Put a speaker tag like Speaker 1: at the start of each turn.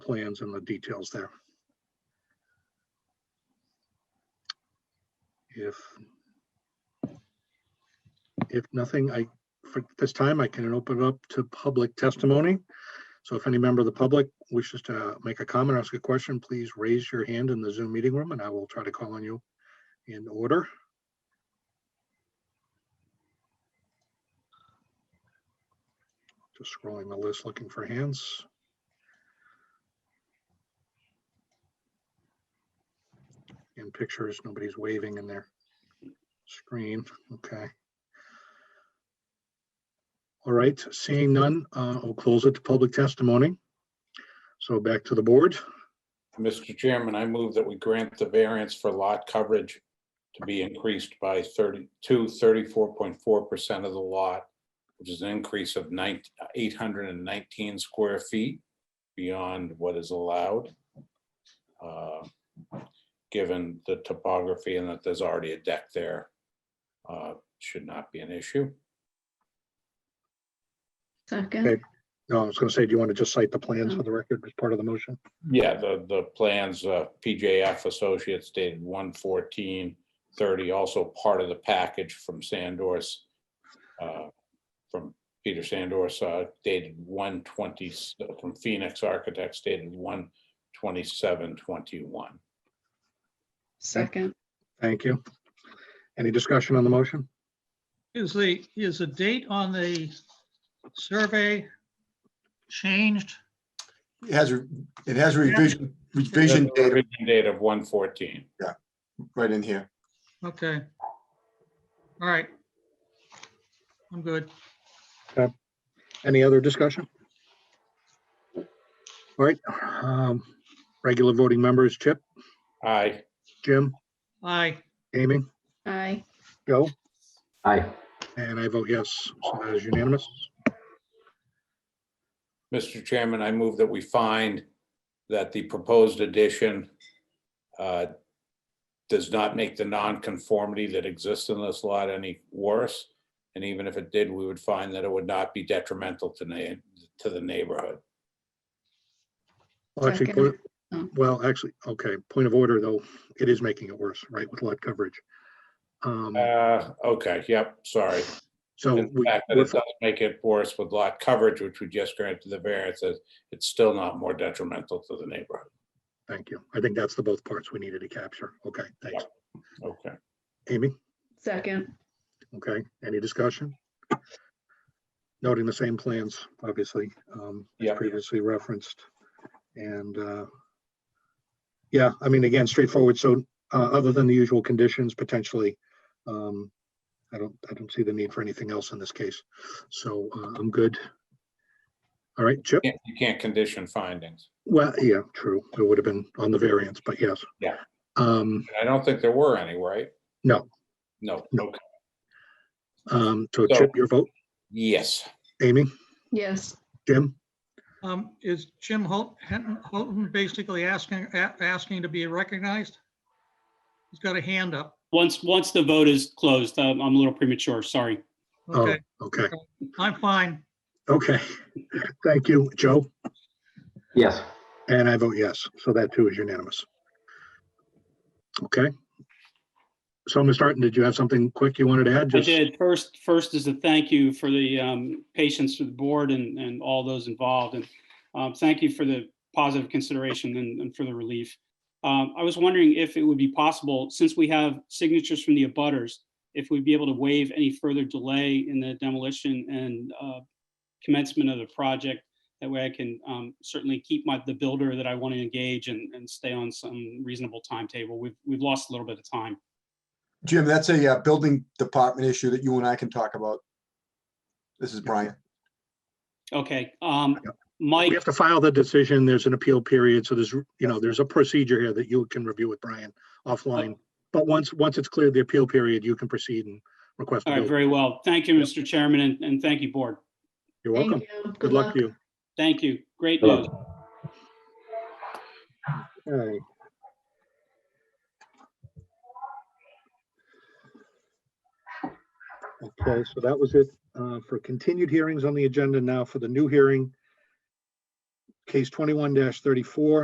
Speaker 1: plans and the details there. If if nothing, I, for this time, I can open it up to public testimony. So if any member of the public wishes to make a comment, or ask a question, please raise your hand in the Zoom meeting room and I will try to call on you in order. Just scrolling the list, looking for hands. In pictures, nobody's waving in their screen. Okay. All right, seeing none, uh, I'll close it to public testimony. So back to the board.
Speaker 2: Mr. Chairman, I move that we grant the variance for lot coverage to be increased by 32, 34.4% of the lot, which is an increase of nine- 819 square feet beyond what is allowed, uh, given the topography and that there's already a deck there, uh, should not be an issue.
Speaker 1: Okay.
Speaker 3: Second,
Speaker 1: No, I was gonna say, do you want to just cite the plans for the record as part of the motion?
Speaker 2: Yeah, the, the plans, uh, PJF Associates dated one fourteen thirty, also part of the package from Sandor's, uh, from Peter Sandor's, uh, dated one twenty, from Phoenix Architects dated one twenty-seven twenty-one.
Speaker 3: second,
Speaker 1: Thank you. Any discussion on the motion?
Speaker 4: Is the, is the date on the survey changed?
Speaker 5: It has, a it has revision, revision data
Speaker 2: Date of one fourteen.
Speaker 5: right in here.
Speaker 4: Okay. All right. I'm good.
Speaker 1: Any other discussion? All right, um, regular voting members, Chip,
Speaker 2: Aye,
Speaker 1: Jim,
Speaker 4: Aye.
Speaker 1: Amy,
Speaker 3: aye,
Speaker 1: Joe,
Speaker 6: Aye,
Speaker 1: and I vote yes, so that is unanimous.
Speaker 2: Mr. Chairman, I move that we find that the proposed addition uh, does not make the nonconformity that exists in this lot any worse. And even if it did, we would find that it would not be detrimental to na, to the neighborhood.
Speaker 1: Well, Actually,
Speaker 3: Second.
Speaker 1: point- well, actually, okay, point of order, though, it is making it worse, right, with lot coverage. Um,
Speaker 2: Uh, okay, yep, sorry.
Speaker 1: so
Speaker 2: The
Speaker 1: we,
Speaker 2: fact that
Speaker 1: we're
Speaker 2: it doesn't make it worse with lot coverage, which we just granted the variance, it- it's still not more detrimental to the neighborhood.
Speaker 1: Thank you. I think that's the both parts we needed to capture. Okay, thanks.
Speaker 2: Okay,
Speaker 1: Amy,
Speaker 3: second,
Speaker 1: okay, any discussion? Noting the same plans, obviously, um, as
Speaker 2: Yeah.
Speaker 1: previously referenced. And, uh, yeah, I mean, again, straightforward. So, uh, other than the usual conditions, potentially, um, I don't, I don't see the need for anything else in this case. So, uh, I'm good. All right, Chip?
Speaker 2: Can't- you can't condition findings.
Speaker 1: Well, yeah, true. It would have been on the variance, but yes.
Speaker 2: Yeah.
Speaker 1: Um,
Speaker 2: I don't think there were any, right?
Speaker 1: no,
Speaker 2: No,
Speaker 1: No.
Speaker 2: okay,
Speaker 1: um, so
Speaker 2: So-
Speaker 1: Chip, your vote?
Speaker 2: yes.
Speaker 1: Amy,
Speaker 3: yes,
Speaker 1: Jim,
Speaker 4: Um, is Jim Hol- Hinton- Holton basically asking, a- asking to be recognized? He's got a hand up.
Speaker 7: Once, once the vote is closed, um, I'm a little premature, sorry.
Speaker 1: Oh.
Speaker 4: Okay,
Speaker 1: okay,
Speaker 4: I'm fine.
Speaker 1: okay. Thank you, Joe,
Speaker 6: yes,
Speaker 1: and I vote yes, so that too is unanimous. Okay. So, Mr. Harton, did you have something quick you wanted to add?
Speaker 7: I
Speaker 1: Just
Speaker 7: did, first, first is a thank you for the um, patience of the board and, and all those involved. And um, thank you for the positive consideration and, and for the relief. Um, I was wondering if it would be possible, since we have signatures from the abutters, if we'd be able to waive any further delay in the demolition and uh, commencement of the project. That way I can um, certainly keep my, the builder that I want to engage and, and stay on some reasonable timetable. We've, we've lost a little bit of time.
Speaker 5: Jim, that's a uh, building department issue that you and I can talk about. This is Brian.
Speaker 7: Okay, um,
Speaker 1: Yep.
Speaker 7: Mike,
Speaker 1: We have to file the decision, there's an appeal period, so there's, you know, there's a procedure here that you can review with Brian offline. But once, once it's cleared the appeal period, you can proceed and request. a
Speaker 7: all right,
Speaker 1: bill.
Speaker 7: very well. Thank you, Mr. Chairman, and, and thank you, board.
Speaker 1: You're
Speaker 3: thank
Speaker 1: welcome.
Speaker 3: you.
Speaker 1: Good luck to you.
Speaker 7: Thank you. Great
Speaker 6: Good luck.
Speaker 7: news.
Speaker 1: Okay. Okay, so that was it uh, for continued hearings on the agenda. Now for the new hearing. Case twenty-one thirty-four,